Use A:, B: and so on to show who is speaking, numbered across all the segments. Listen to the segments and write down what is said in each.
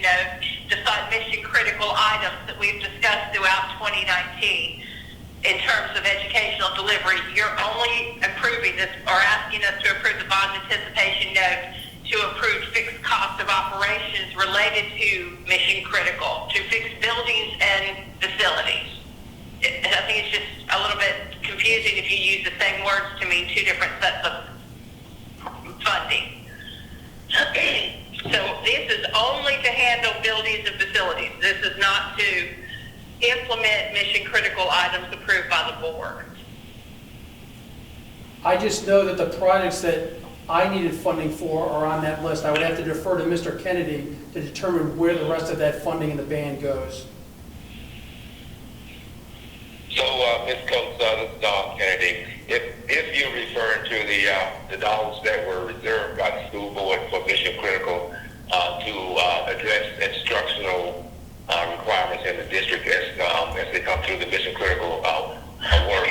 A: know, decide mission critical items that we've discussed throughout 2019 in terms of educational delivery. You're only approving this or asking us to approve the bond anticipation note to approve fixed cost of operations related to mission critical, to fix buildings and facilities. It- I think it's just a little bit confusing if you use the same words to mean two different sets of funding. So this is only to handle buildings and facilities. This is not to implement mission critical items approved by the board.
B: I just know that the projects that I needed funding for are on that list. I would have to defer to Mr. Kennedy to determine where the rest of that funding in the band goes.
C: So, uh, Ms. Coates, uh, this is Don Kennedy. If, if you're referring to the, uh, the dollars that were reserved by the school board for mission critical, uh, to, uh, address instructional, uh, requirements in the district as, um, as they come through the mission critical, uh, uh, work,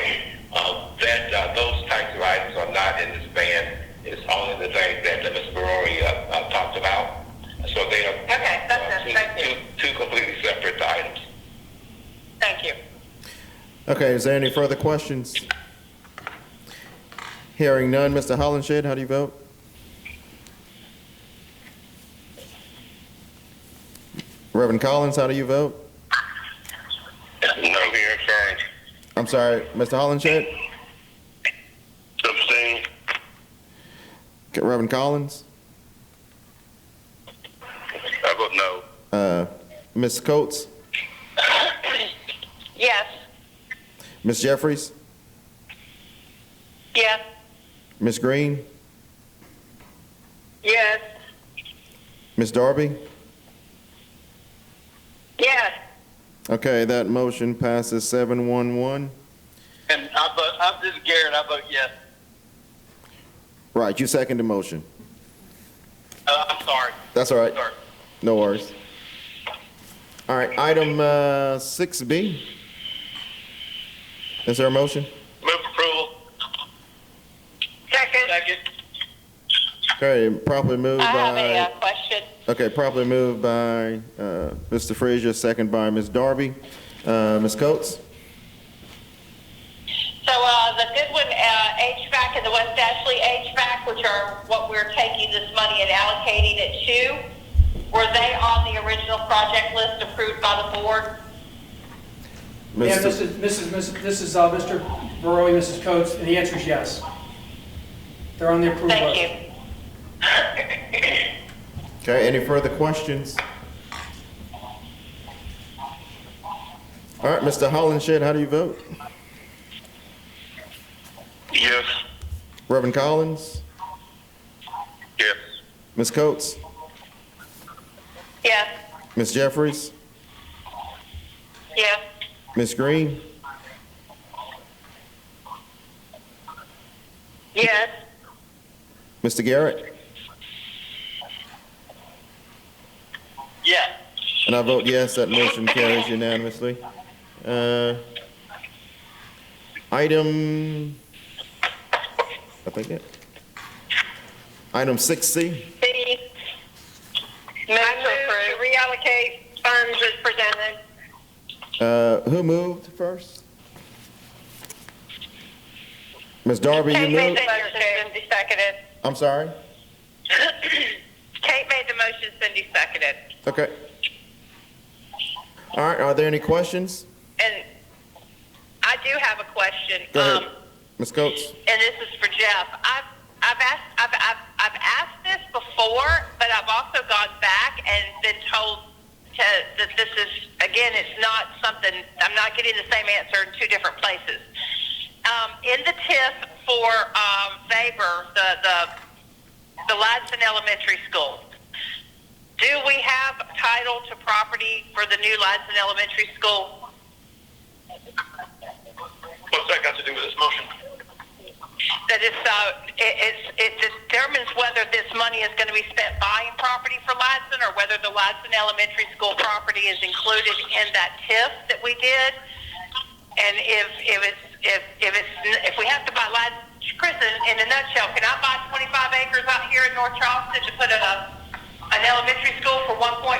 C: uh, that, uh, those types of items are not in this ban. It's only the things that Ms. Barori, uh, uh, talked about. So they are.
A: Okay, that's it.
C: uh, two-
A: Thank you.
C: Two, two completely separate items.
A: Thank you.
D: Okay, is there any further questions? Hearing none, Mr. Hollenshed, how do you vote? Reverend Collins, how do you vote?
C: No, here, sorry.
D: I'm sorry, Mr. Hollenshed?
C: Abstain.
D: Okay, Reverend Collins?
C: I vote no.
D: Uh, Ms. Coates?
A: Yes.
D: Ms. Jeffries?
A: Yes.
D: Ms. Green?
A: Yes.
D: Ms. Darby?
A: Yes.
D: Okay, that motion passes seven one one.
E: And I vote, I'm, this is Garrett, I vote yes.
D: Right, you second the motion.
E: Uh, I'm sorry,
D: That's all right.
E: sorry.
D: No worries. All right, item uh, 6B. Is there a motion?
E: Move approval.
A: Second.
E: Second.
D: Okay, properly moved
A: I have a uh,
D: by,
A: question.
D: okay, properly moved by uh, Mr. Frazier, second by Ms. Darby. Uh, Ms. Coates?
A: So uh, the Goodwin uh, HVAC and the West Ashley HVAC, which are what we're taking this money and allocating it to, were they on the original project list approved by the board?
B: Yeah,
D: Mr.
B: this is, this is- this is, this is, uh, Mr. Barrowe, Mrs. Coates, and the answer is yes. They're on the approved list.
A: Thank you.
D: Okay, any further questions? All right, Mr. Hollenshed, how do you vote?
C: Yes.
D: Reverend Collins?
C: Yes.
D: Ms. Coates?
A: Yes.
D: Ms. Jeffries?
A: Yes.
D: Ms. Green?
A: Yes.
D: Mr. Garrett?
E: Yes.
D: And I vote yes, that motion carries unanimously. Uh, Item, I think it. Item 6C,
A: C. Move to reallocate funds as presented.
D: Uh, who moved first? Ms. Darby, you moved?
A: Cindy seconded.
D: I'm sorry?
A: Kate made the motion, Cindy seconded.
D: Okay. All right, are there any questions?
A: And I do have a question.
D: Go
A: Um,
D: ahead. Ms. Coates?
A: and this is for Jeff. I've I've asked I've, I've I've asked this before, but I've also gone back and been told to, that this is again, it's not something I'm not getting the same answer in two different places. Um, in the TIF for um, Faber, the the the Ladson Elementary School. Do we have title to property for the new Ladson Elementary School?
E: What's that got to do with this motion?
A: that it's, uh, it, it's, it determines whether this money is going to be spent buying property for Ladson or whether the Ladson Elementary School property is included in that TIF that we did. And if, if it's, if, if it's, if we have to buy Ladson, Chris, in, in a nutshell, can I buy 25 acres out here in North Charleston to put a, an elementary school for 1.5